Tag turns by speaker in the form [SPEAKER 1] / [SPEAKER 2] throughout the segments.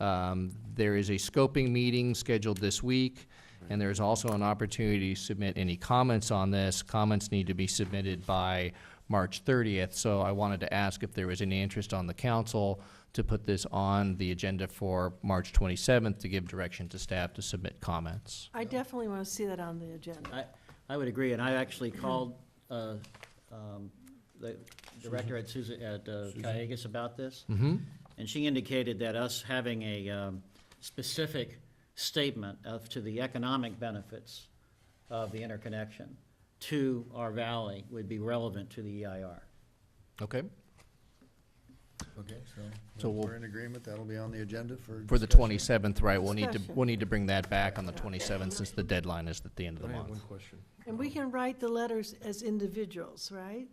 [SPEAKER 1] Um, There is a scoping meeting scheduled this week, and there is also an opportunity to submit any comments on this. Comments need to be submitted by March thirtieth, so I wanted to ask if there was any interest on the council to put this on the agenda for March twenty-seventh to give direction to staff to submit comments.
[SPEAKER 2] I definitely want to see that on the agenda.
[SPEAKER 3] I, I would agree, and I actually called uh, um, the director at Susan, at uh, Cayugas about this,
[SPEAKER 1] Mm-hmm,
[SPEAKER 3] and she indicated that us having a um, specific statement of, to the economic benefits of the interconnection to our valley would be relevant to the E EIR.
[SPEAKER 1] okay.
[SPEAKER 4] Okay,
[SPEAKER 1] So
[SPEAKER 4] so
[SPEAKER 1] we'll-
[SPEAKER 4] we're in agreement, that'll be on the agenda for.
[SPEAKER 1] For the
[SPEAKER 4] discussion.
[SPEAKER 1] twenty-seventh, right, we'll need to,
[SPEAKER 2] Discussion.
[SPEAKER 1] we'll need to bring that back on the twenty-seventh since the deadline is at the end of the
[SPEAKER 5] I have one
[SPEAKER 1] month.
[SPEAKER 5] question.
[SPEAKER 2] And we can write the letters as individuals, right?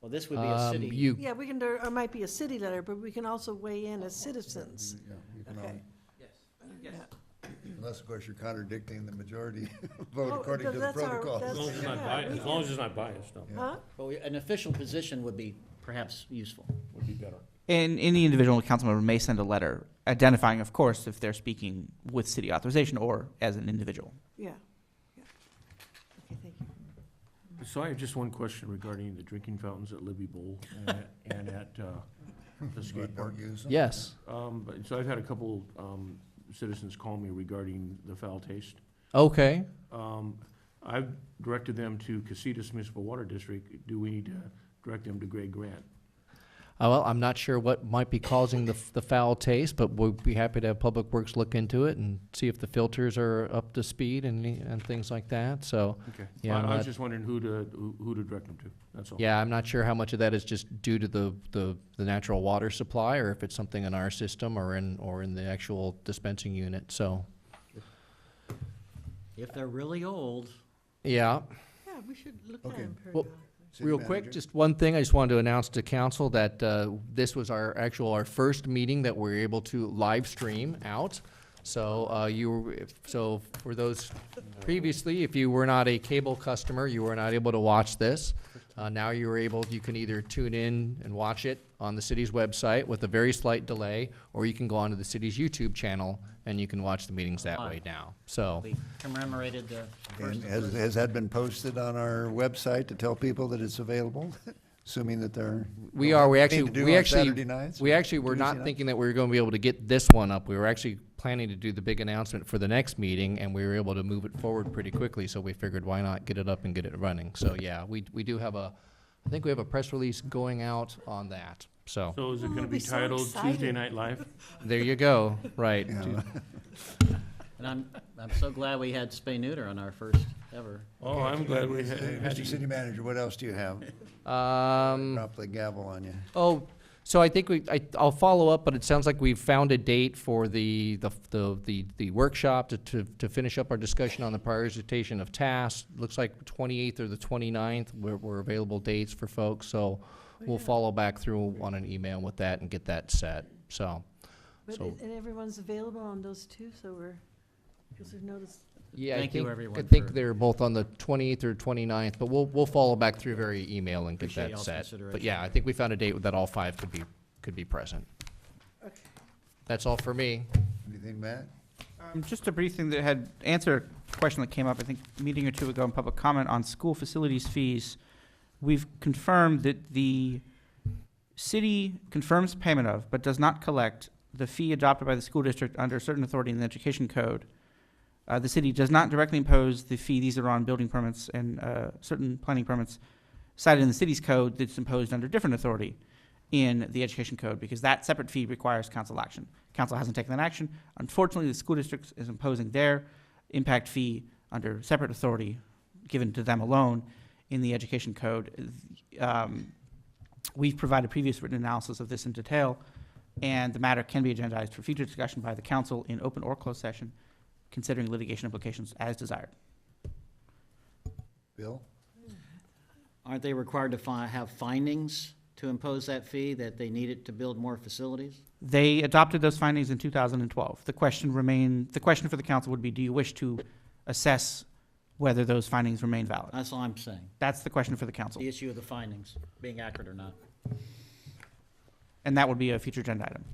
[SPEAKER 3] Well, this would be a
[SPEAKER 1] Um,
[SPEAKER 3] city,
[SPEAKER 1] You,
[SPEAKER 2] Yeah, we can, do- or it might be a city letter, but we can also weigh in as citizens.
[SPEAKER 4] Yeah, you can
[SPEAKER 2] Okay.
[SPEAKER 4] all-
[SPEAKER 2] Yes.
[SPEAKER 4] Unless, of course, you're contradicting the majority vote
[SPEAKER 2] Oh,
[SPEAKER 4] according to the
[SPEAKER 2] that's our-
[SPEAKER 4] protocol.
[SPEAKER 2] that's-
[SPEAKER 6] As long as it's not
[SPEAKER 2] Yeah,
[SPEAKER 6] biased,
[SPEAKER 2] we
[SPEAKER 6] as long as it's not biased, no,
[SPEAKER 2] Huh?
[SPEAKER 3] well, we- an official position would be perhaps useful.
[SPEAKER 6] would be better.
[SPEAKER 7] And any individual council member may send a letter identifying, of course, if they're speaking with city authorization or as an individual.
[SPEAKER 2] Yeah. yeah. Okay, thank you.
[SPEAKER 6] So I have just one question regarding the drinking fountains at Libby Bowl and at- and at uh, the skate
[SPEAKER 4] But
[SPEAKER 6] park.
[SPEAKER 4] don't use them.
[SPEAKER 1] yes,
[SPEAKER 6] Um, but- So I've had a couple um, citizens call me regarding the foul taste.
[SPEAKER 1] okay.
[SPEAKER 6] Um, I've directed them to Casitas Municipal Water District. Do we need to direct them to Greg Grant?
[SPEAKER 1] Uh, Well, I'm not sure what might be causing the, the foul taste, but we'd be happy to have Public Works look into it and see if the filters are up to speed and, and things like that, so.
[SPEAKER 6] Okay.
[SPEAKER 1] Yeah, I'm
[SPEAKER 6] I I
[SPEAKER 1] not-
[SPEAKER 6] was just wondering who to, who- who to direct them to, that's all.
[SPEAKER 1] Yeah, I'm not sure how much of that is just due to the, the, the natural water supply, or if it's something in our system or in, or in the actual dispensing unit, so.
[SPEAKER 3] If they're really old,
[SPEAKER 1] Yeah,
[SPEAKER 2] Yeah, we should look at
[SPEAKER 4] Okay.
[SPEAKER 2] them
[SPEAKER 1] Well,
[SPEAKER 2] periodically.
[SPEAKER 4] City
[SPEAKER 1] Real quick,
[SPEAKER 4] manager?
[SPEAKER 1] just one thing, I just wanted to announce to council that uh, this was our actual, our first meeting that we're able to live stream out. So uh, you, were- if- so for those previously, if you were not a cable customer, you were not able to watch this. Uh, Now you are able, you can either tune in and watch it on the city's website with a very slight delay, or you can go onto the city's YouTube channel and you can watch the meetings that way now, so.
[SPEAKER 3] we commemorated the first.
[SPEAKER 4] And has, has that been posted on our website to tell people that it's available, assuming that they're?
[SPEAKER 1] We are, we
[SPEAKER 4] Anything to
[SPEAKER 1] actually,
[SPEAKER 4] do
[SPEAKER 1] we
[SPEAKER 4] on
[SPEAKER 1] actually,
[SPEAKER 4] Saturday nights
[SPEAKER 1] we
[SPEAKER 4] or
[SPEAKER 1] actually were
[SPEAKER 4] Tuesday
[SPEAKER 1] not
[SPEAKER 4] nights?
[SPEAKER 1] thinking that we were gonna be able to get this one up. We were actually planning to do the big announcement for the next meeting, and we were able to move it forward pretty quickly, so we figured why not get it up and get it running? So, yeah, we, we do have a, I think we have a press release going out on that, so,
[SPEAKER 6] So is it
[SPEAKER 2] Oh,
[SPEAKER 6] gonna
[SPEAKER 2] I'll
[SPEAKER 6] be
[SPEAKER 2] be so
[SPEAKER 6] titled Tuesday
[SPEAKER 2] excited.
[SPEAKER 6] Night Live?
[SPEAKER 1] there you go, right.
[SPEAKER 3] And I'm, I'm so glad we had spay neuter on our first ever.
[SPEAKER 6] Oh, I'm glad we had.
[SPEAKER 4] Hey,
[SPEAKER 6] had
[SPEAKER 4] Mr.
[SPEAKER 6] you.
[SPEAKER 4] City Manager, what else do you have?
[SPEAKER 1] Um,
[SPEAKER 4] Drop the gavel on you.
[SPEAKER 1] Oh, so I think we, I, I'll follow up, but it sounds like we've found a date for the, the, the, the, the workshop to, to, to finish up our discussion on the prioritization of tasks. Looks like twenty-eighth or the 29th were, were available dates for folks, so we'll follow back through on an email with that and get that set, so.
[SPEAKER 2] But,
[SPEAKER 1] So-
[SPEAKER 2] it- and everyone's available on those two, so we're, because we've noticed,
[SPEAKER 1] Yeah, I
[SPEAKER 3] Thank you,
[SPEAKER 1] think, I
[SPEAKER 3] everyone,
[SPEAKER 1] think
[SPEAKER 3] for-
[SPEAKER 1] they're both on the twenty-eighth or 29th, but we'll, we'll follow back through very email and get
[SPEAKER 3] Appreciate
[SPEAKER 1] that
[SPEAKER 3] y'all's
[SPEAKER 1] set. But
[SPEAKER 3] consideration.
[SPEAKER 1] yeah, I think we found a date that all five could be, could be present.
[SPEAKER 2] Okay.
[SPEAKER 1] That's all for me.
[SPEAKER 4] Anything, Matt?
[SPEAKER 7] Um, just a brief thing that had, answer a question that came up, I think, a meeting or two ago in public comment on school facilities fees. We've confirmed that the city confirms payment of, but does not collect, the fee adopted by the school district under certain authority in the education code. Uh, the city does not directly impose the fee, these are on building permits and, uh, certain planning permits cited in the city's code that's imposed under different authority in the education code, because that separate fee requires council action. Council hasn't taken that action, Unfortunately, the school district is imposing their impact fee under separate authority given to them alone in the education code. Um, We've provided previous written analysis of this in detail, and the matter can be agendized for future discussion by the council in open or closed session, considering litigation implications as desired.
[SPEAKER 4] Bill?
[SPEAKER 3] Aren't they required to fi- have findings to impose that fee, that they need it to build more facilities?
[SPEAKER 7] They adopted those findings in 2012. The question remain, the question for the council would be, do you wish to assess whether those findings remain valid?
[SPEAKER 3] That's all I'm saying,
[SPEAKER 7] That's the question for the council,
[SPEAKER 3] the issue of the findings, being accurate or not.
[SPEAKER 7] and that would be a future agenda item.